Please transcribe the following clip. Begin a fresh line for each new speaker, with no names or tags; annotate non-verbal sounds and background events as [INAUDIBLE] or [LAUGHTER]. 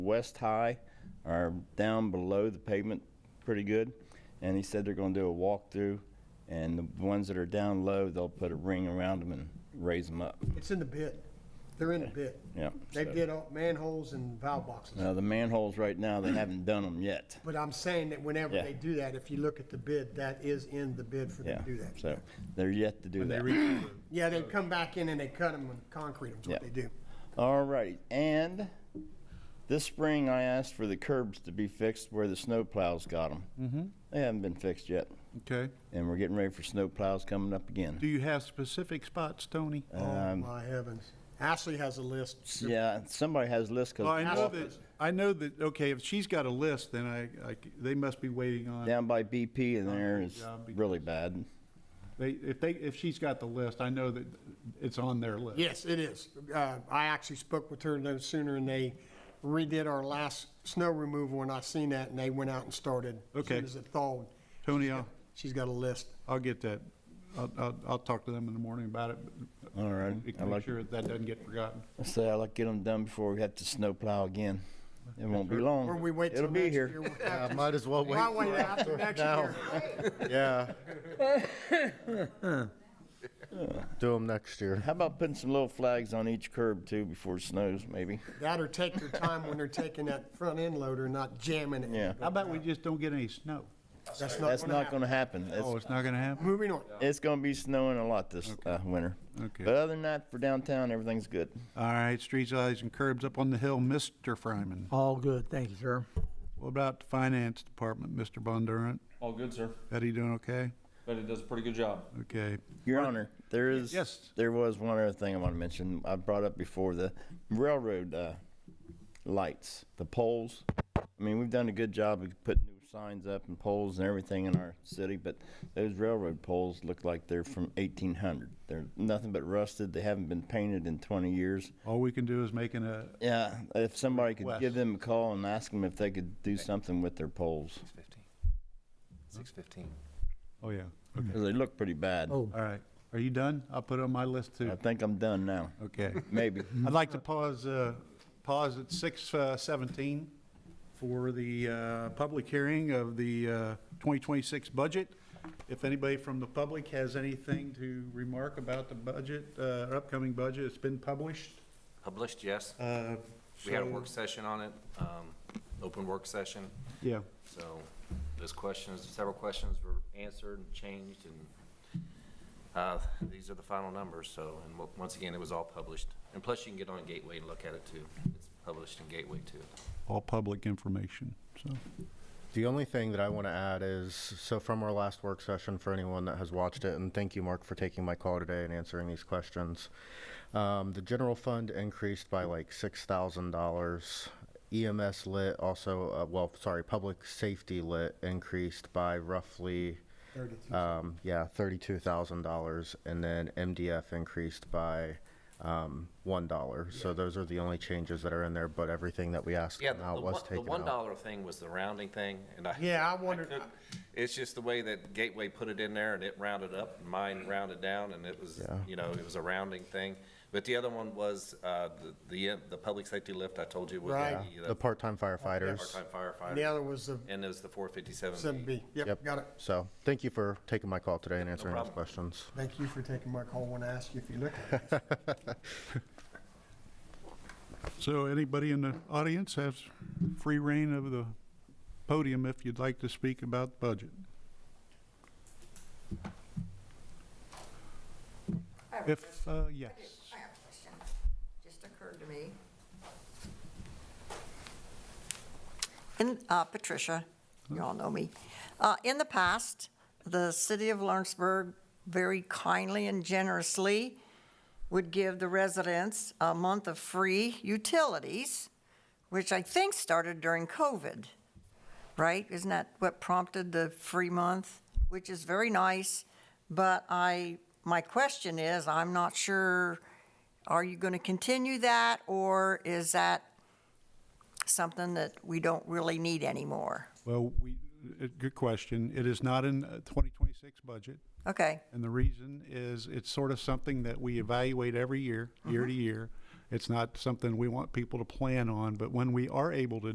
west high are down below the pavement pretty good. And he said they're going to do a walkthrough, and the ones that are down low, they'll put a ring around them and raise them up.
It's in the bid. They're in the bid.
Yeah.
They
so-
bid all manholes and valve boxes.
Now, the manholes right now, they haven't done them yet.
But I'm saying that whenever
Yeah.
they do that, if you look at the bid, that is in the bid for them
Yeah.
to do that.
So they're yet to do that. [CLEARS THROAT]
Yeah, they come back in and they cut them and concrete them, is what
Yeah.
they do.
All right, and this spring I asked for the curbs to be fixed where the snow plows got them. Mm-hmm. They haven't been fixed yet,
Okay.
and we're getting ready for snow plows coming up again.
Do you have specific spots, Tony?
Uh,
Oh, my heavens. Ashley has a list.
Um, Yeah, somebody has a list,
Well, Oh, I know
because
that, I know that, okay, if she's got a list, then I, I c- they must be waiting on,
down by BP in there is
Yeah, because-
really bad.
they, if they, if she's got the list, I know that it's on their list.
Yes, it is. Uh, I actually spoke with her no sooner and they redid our last snow removal and I seen that and they went out and started. As
Okay.
soon as it thawed,
Tony, I'll,
she's got a list.
I'll get that. I'll, I'll, I'll talk to them in the morning about it. but
All right, I
we can Make
like,
sure that doesn't get forgotten.
I say I like to get them done before we have to snow plow again. It won't be long.
Or we wait till
It'll be
next
here.
year. We'll have to-
Might as well wait.
Might wait after next year. [LAUGHS]
Yeah. Do them next year.
How about putting some little flags on each curb too before it snows, maybe?
That or take their time when they're taking that front end loader, not jamming it.
Yeah.
How about we just don't get any snow?
That's not
That's
gonna
not
happen.
gonna happen. That's-
Oh, it's not gonna happen?
Moving on.
It's going to be snowing a lot this uh, winter.
Okay.
But other than that, for downtown, everything's good.
All right, streets, alleys, and curbs up on the hill, Mr. Fryman.
Uh,
All good, thank you, sir.
What about the finance department, Mr. Bondurant?
All good, sir.
Betty doing okay?
Betty does a pretty good job.
Okay.
Your Honor, there is
Yes.
there was one other thing I want to mention. I brought up before the railroad uh, lights, the poles. I mean, we've done a good job of putting new signs up and poles and everything in our city, but those railroad poles look like they're from 1800. They're nothing but rusted. They haven't been painted in 20 years.
All we can do is make an, uh,
Yeah, if somebody could give
Request.
them a call and ask them if they could do something with their poles,
Six fifteen.
oh, yeah, okay.
'cause they look pretty bad.
Oh.
All right. Are you done? I'll put it on my list
I
too.
think I'm done now.
Okay. [LAUGHS]
Maybe.
I'd like to pause, uh, pause at six uh, seventeen for the, uh, public hearing of the, uh, twenty twenty-six budget. If anybody from the public has anything to remark about the budget, uh, upcoming budget, it's been published.
Published, yes.
Uh,
We had a
so-
work session on it, um, open work session.
Yeah,
So those questions, several questions were answered and changed, and uh, these are the final numbers, so, and wo- once again, it was all published. And plus, you can get on Gateway and look at it, too. It's published in Gateway, too.
all public information, so.
The only thing that I want to add is, so from our last work session, for anyone that has watched it, and thank you, Mark, for taking my call today and answering these questions. Um, the general fund increased by like six thousand dollars. EMS lit also, uh, well, sorry, public safety lit increased by roughly, um, yeah, thirty-two thousand dollars, and then MDF increased by um, one dollar. So those are the only changes that are in there, but everything that we asked
Yeah,
them
the
out
the one,
was
the
taken
one
out.
dollar thing was the rounding thing, and I.
Yeah, I wondered-
could- It's just the way that Gateway put it in there, and it rounded up, and mine rounded down, and it was, you know, it was a rounding thing. But the other one was, uh, the, the, uh, the public safety lift I told you was
Right.
the,
The
the
part-time firefighters.
part-time
And The
firefighter,
other was the
and it was the four fifty-seven
seven B. Yep,
Yep.
got it.
So, thank you for taking my call today and answering those
problem.
questions.
Thank you for taking my call when I asked you if you look at it.
So anybody in the audience has free reign of the podium if you'd like to speak about the budget.
I have a
If, uh, yes.
I have a question, just occurred to me. And uh, Patricia, you all know me. Uh, In the past, the city of Lawrenceburg very kindly and generously would give the residents a month of free utilities, which I think started during COVID, right? Isn't that what prompted the free month? Which is very nice, but I, my question is, I'm not sure, are you going to continue that, or is that something that we don't really need anymore?
Well, we, uh, good question. It is not in uh, twenty twenty-six budget.
Okay, Mm-hmm.
And the reason is it's sort of something that we evaluate every year, year to year. It's not something we want people to plan on, but when we are able to